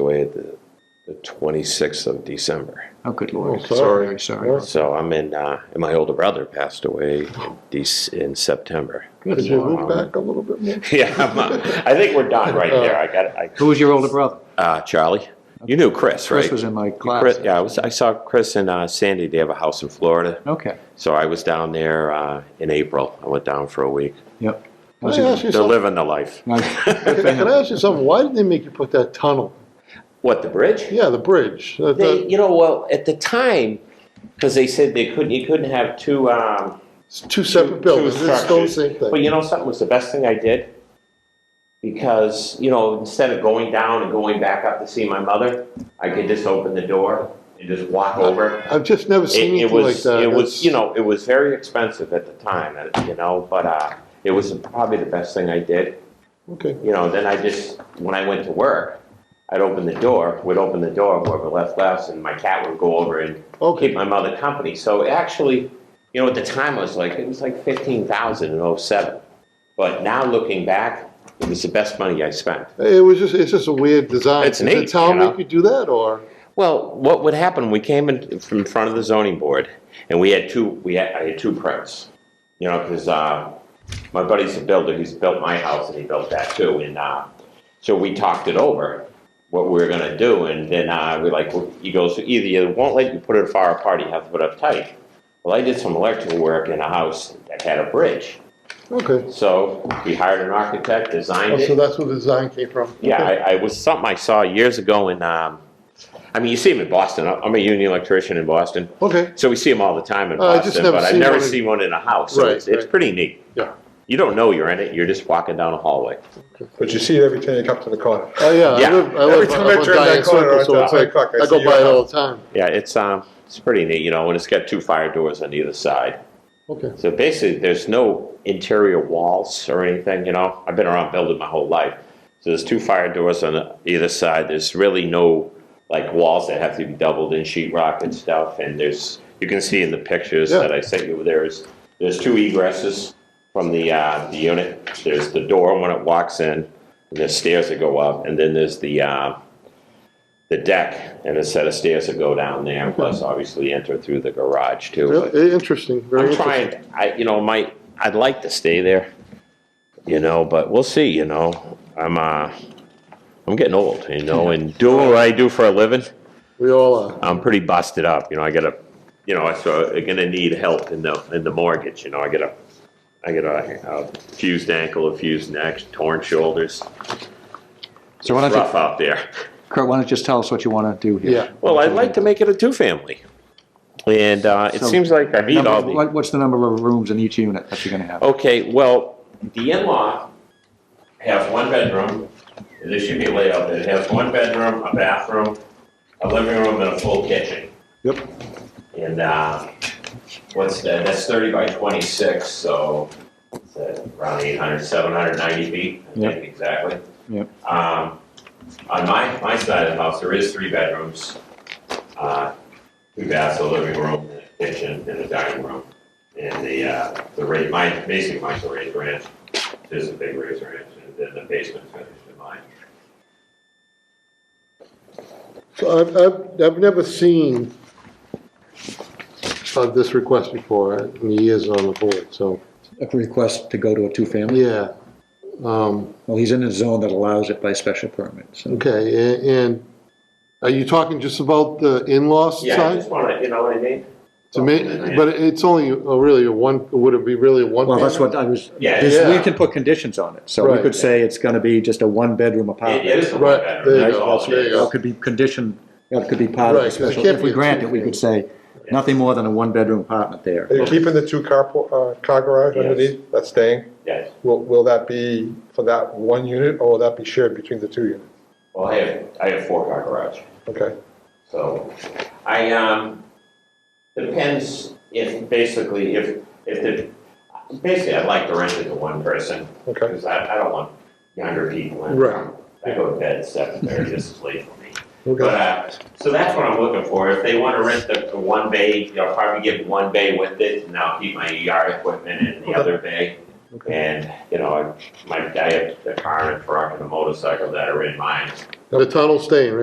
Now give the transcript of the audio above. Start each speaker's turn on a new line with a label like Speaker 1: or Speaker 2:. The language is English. Speaker 1: away at the, the 26th of December.
Speaker 2: Oh, good lord.
Speaker 3: sorry.
Speaker 2: Very
Speaker 3: Yeah.
Speaker 2: sorry.
Speaker 1: So I'm in, uh, and my older brother passed away in, Dec- in September.
Speaker 2: Good
Speaker 3: Could you
Speaker 2: lord.
Speaker 3: move back a little bit more?
Speaker 1: Yeah, I'm, uh, I think we're done right there. I got it. I,
Speaker 2: Who was your older brother?
Speaker 1: uh, Charlie, you knew Chris, right?
Speaker 2: Chris was in my class.
Speaker 1: Chris- yeah, I, was, I saw Chris and uh, Sandy. They have a house in Florida.
Speaker 2: Okay,
Speaker 1: So I was down there uh, in April. I went down for a week.
Speaker 2: yep. I
Speaker 3: Can
Speaker 2: was
Speaker 3: I
Speaker 2: in-
Speaker 3: ask you
Speaker 1: They're
Speaker 3: something?
Speaker 1: living the life.
Speaker 2: I-
Speaker 3: Can I ask you something? Why did they make you put that tunnel?
Speaker 1: What, the bridge?
Speaker 3: Yeah, the bridge. That-
Speaker 1: They,
Speaker 3: that-
Speaker 1: you know, well, at the time, because they said they couldn't, you couldn't have two, um,
Speaker 3: It's two
Speaker 1: two
Speaker 3: separate
Speaker 1: two
Speaker 3: buildings. It's still the same
Speaker 1: structures. But
Speaker 3: thing.
Speaker 1: you know something was the best thing I did? Because, you know, instead of going down and going back up to see my mother, I could just open the door and just walk over.
Speaker 3: I've just never seen
Speaker 1: It, it
Speaker 3: anything like
Speaker 1: was,
Speaker 3: that.
Speaker 1: it was,
Speaker 3: That's-
Speaker 1: you know, it was very expensive at the time, uh, you know, but, uh, it was probably the best thing I did.
Speaker 3: Okay.
Speaker 1: You know, then I just, when I went to work, I'd open the door, would open the door, whoever left left, and my cat would go over and keep
Speaker 3: Okay.
Speaker 1: my mother company. So actually, you know, at the time I was like, it was like fifteen thousand in '07. But now looking back, it was the best money I spent.
Speaker 3: It was just, it's just a weird design.
Speaker 1: It's
Speaker 3: Did the
Speaker 1: neat, you
Speaker 3: town
Speaker 1: know?
Speaker 3: make you do that or?
Speaker 1: Well, what would happen? We came in from in front of the zoning board, and we had two. We had I had two prints, you know, because uh, my buddy's a builder. He's built my house, and he built that too. And uh, so we talked it over what we were gonna do, and then uh, we like well, he goes either you won't let you put it far apart, you have to put it up tight. Well, I did some electrical work in a house that had a bridge,
Speaker 3: Okay.
Speaker 1: so we hired an architect, designed
Speaker 3: Oh,
Speaker 1: it.
Speaker 3: So that's where the design came from?
Speaker 1: Yeah,
Speaker 3: Okay.
Speaker 1: I, I was something I saw years ago in. Um, I mean, you see them in Boston. I- I'm a union electrician in Boston,
Speaker 3: Okay.
Speaker 1: so we see them all the time in
Speaker 3: Uh, I just
Speaker 1: Boston.
Speaker 3: never
Speaker 1: but I've
Speaker 3: seen
Speaker 1: never
Speaker 3: one in-
Speaker 1: seen one in a house. So
Speaker 3: Right,
Speaker 1: it's, it's
Speaker 3: right.
Speaker 1: pretty neat.
Speaker 3: Yeah.
Speaker 1: You don't know you're in it. You're just walking down a hallway.
Speaker 4: But you see it every time you come to the corner.
Speaker 3: Oh, yeah. I
Speaker 1: Yeah.
Speaker 3: live, I
Speaker 4: Every
Speaker 3: live
Speaker 4: time
Speaker 3: up
Speaker 4: I
Speaker 3: on
Speaker 4: turn that
Speaker 3: Diane
Speaker 4: corner,
Speaker 3: Circle,
Speaker 4: I
Speaker 3: so
Speaker 4: turn
Speaker 3: it's
Speaker 4: my
Speaker 3: like,
Speaker 4: cock, I
Speaker 3: I go
Speaker 4: see
Speaker 3: by it
Speaker 4: your
Speaker 3: all the time.
Speaker 1: Yeah, it's um, it's pretty neat, you know, and it's got two fire doors on either side.
Speaker 3: Okay.
Speaker 1: So basically, there's no interior walls or anything. You know, I've been around building my whole life. So there's two fire doors on either side. There's really no like walls that have to be doubled in sheetrock and stuff. And there's you can see in the pictures
Speaker 3: Yeah.
Speaker 1: that I sent you. There's there's two egresses from the uh, the unit. There's the door when it walks in. And there's stairs that go up, and then there's the uh, the deck and a set of stairs that go down there. Plus, obviously, enter through the garage too. but-
Speaker 3: Really Interesting, very
Speaker 1: I'm
Speaker 3: interesting.
Speaker 1: trying. I, you know, my I'd like to stay there, you know, but we'll see. You know, I'm uh, I'm getting old, you know, and doing what I do for a living,
Speaker 3: We all are.
Speaker 1: I'm pretty busted up. You know, I gotta, you know, I so I'm gonna need help in the in the mortgage. You know, I got a, I got a, a fused ankle, a fused neck, torn shoulders.
Speaker 2: So why
Speaker 1: It's
Speaker 2: don't
Speaker 1: rough
Speaker 2: you,
Speaker 1: out there.
Speaker 2: Kurt, why don't you just tell us what you want to do here?
Speaker 3: Yeah.
Speaker 1: Well, I'd like to make it a two-family, and uh, it
Speaker 2: So-
Speaker 1: seems like I meet
Speaker 2: Number-
Speaker 1: all the.
Speaker 2: what- What's the number of rooms in each unit that you're going
Speaker 1: Oh.
Speaker 2: to have?
Speaker 1: Okay, well. The in-law has one bedroom, and this should be laid out, it has one bedroom, a bathroom, a living room, and a full kitchen.
Speaker 3: Yep.
Speaker 1: And, uh, what's that, that's thirty by twenty-six, so it's uh, around 800, 790 feet, I
Speaker 2: Yep.
Speaker 1: think exactly.
Speaker 2: Yep.
Speaker 1: Um, on my, my side of the house, there is three bedrooms, uh, two baths, a living room, and a kitchen, and a dining room. And the, uh, the raise, mine, basically mine's a raised ranch, there's a big raised ranch, and then the basement finished in mine.
Speaker 3: So I've, I've, I've never seen uh, this request before in the years on the board, so,
Speaker 2: A request to go to a two-family?
Speaker 3: yeah. Um,
Speaker 2: Well, he's in a zone that allows it by special permit, so.
Speaker 3: okay, a- and are you talking just about the in-law
Speaker 1: Yeah, I
Speaker 3: side?
Speaker 1: just wanna, you know what I mean?
Speaker 3: To me, but it's only a- really a one, would it be really a one?
Speaker 2: Well, that's what I was,
Speaker 1: Yeah.
Speaker 2: is we
Speaker 3: Yeah.
Speaker 2: can put conditions on it, so we
Speaker 3: Right.
Speaker 2: could say it's going to be just a one-bedroom
Speaker 1: It
Speaker 2: apartment.
Speaker 1: it is a one
Speaker 3: Right,
Speaker 1: bedroom.
Speaker 3: there you
Speaker 1: that's
Speaker 3: go,
Speaker 1: all it
Speaker 3: there you
Speaker 1: is.
Speaker 3: go.
Speaker 2: That could be conditioned, that could be part of
Speaker 3: Right,
Speaker 2: the
Speaker 3: 'cause it
Speaker 2: special,
Speaker 3: can't
Speaker 2: if
Speaker 3: be
Speaker 2: we
Speaker 3: a
Speaker 2: grant it, we could say, nothing more than a one-bedroom apartment there.
Speaker 4: Are you keeping the two car, po- uh, car garage
Speaker 1: Yes.
Speaker 4: underneath, that's staying?
Speaker 1: Yes,
Speaker 4: Will, will that be for that one unit, or will that be shared between the two units?
Speaker 1: well, I have, I have four car garage.
Speaker 4: Okay,
Speaker 1: So I, um, depends if, basically, if, if the, basically, I'd like to rent it to one person,
Speaker 4: okay.
Speaker 1: because I, I don't want younger people in.
Speaker 3: Right.
Speaker 1: I go to bed at seven thirty, this is late for me. But,
Speaker 3: Okay.
Speaker 1: uh, so that's what I'm looking for, if they wanna rent the, the one bay, you know, probably get one bay with it, and I'll keep my ER equipment in the
Speaker 4: Okay.
Speaker 1: other bay.
Speaker 4: Okay.
Speaker 1: And, you know, I, my, I have the car and truck and a motorcycle that are in mine,
Speaker 3: The tunnel's staying, right?